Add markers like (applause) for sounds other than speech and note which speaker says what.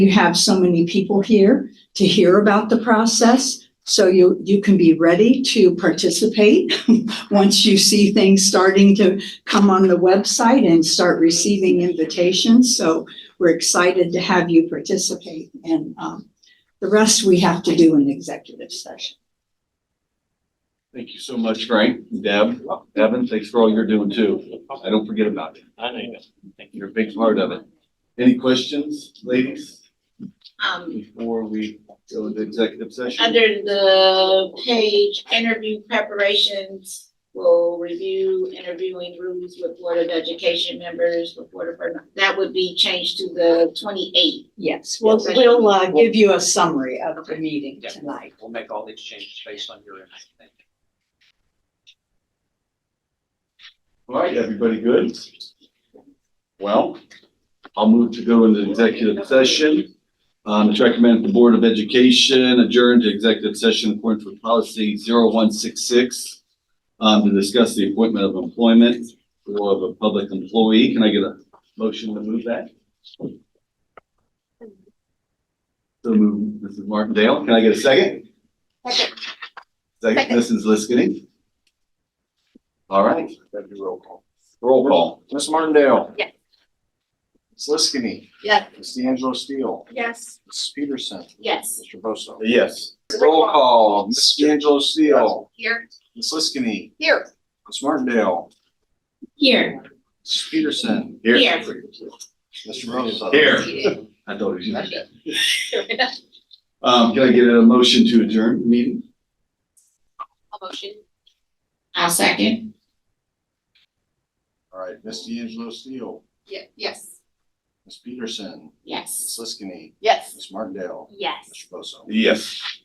Speaker 1: You have so many people here to hear about the process. So you, you can be ready to participate (laughs) once you see things starting to come on the website and start receiving invitations. So we're excited to have you participate and, um, the rest we have to do in executive session.
Speaker 2: Thank you so much, Frank, Deb, Evan, thanks for all you're doing too. I don't forget about you.
Speaker 3: I know you guys.
Speaker 2: You're a big part of it. Any questions, ladies,
Speaker 4: Um,
Speaker 2: before we go into executive session?
Speaker 4: under the page, interview preparations, we'll review interviewing rules with Board of Education members, with Board of, that would be changed to the twenty-eighth.
Speaker 1: Yes, we'll, we'll, uh, give you a summary of the meeting
Speaker 3: Yeah.
Speaker 1: tonight.
Speaker 3: We'll make all these changes based on your input. Thank you.
Speaker 2: All right, everybody good? Well, I'll move to go into executive session. Um, it's recommended the Board of Education adjourn to executive session according to policy 0166 um, to discuss the appointment of employment or of a public employee. Can I get a motion to move that? So move, Mrs. Martindale. Can I get a second? Second, Mrs. Liskini. All right.
Speaker 5: That'd be roll call.
Speaker 2: Roll call.
Speaker 5: Ms. Martindale?
Speaker 4: Yes.
Speaker 5: Ms. Liskini?
Speaker 4: Yes.
Speaker 5: Ms. D'Angelo Steele?
Speaker 4: Yes.
Speaker 5: Mrs. Peterson?
Speaker 4: Yes.
Speaker 5: Mr. Bosso?
Speaker 2: Yes.
Speaker 5: Roll call. Ms. D'Angelo Steele?
Speaker 4: Here.
Speaker 5: Ms. Liskini?
Speaker 4: Here.
Speaker 5: Ms. Martindale?
Speaker 4: Here.
Speaker 5: Mrs. Peterson?
Speaker 4: Here.
Speaker 5: Mr. Bosso?
Speaker 2: Here. I thought it was you. Um, can I get a motion to adjourn the meeting?
Speaker 4: motion. I'll second.
Speaker 5: All right, Ms. D'Angelo Steele?
Speaker 4: Yeah, yes.
Speaker 5: Ms. Peterson?
Speaker 4: Yes.
Speaker 5: Ms. Liskini?
Speaker 4: Yes.
Speaker 5: Ms. Martindale?
Speaker 4: Yes.
Speaker 5: Mr. Bosso?
Speaker 2: Yes.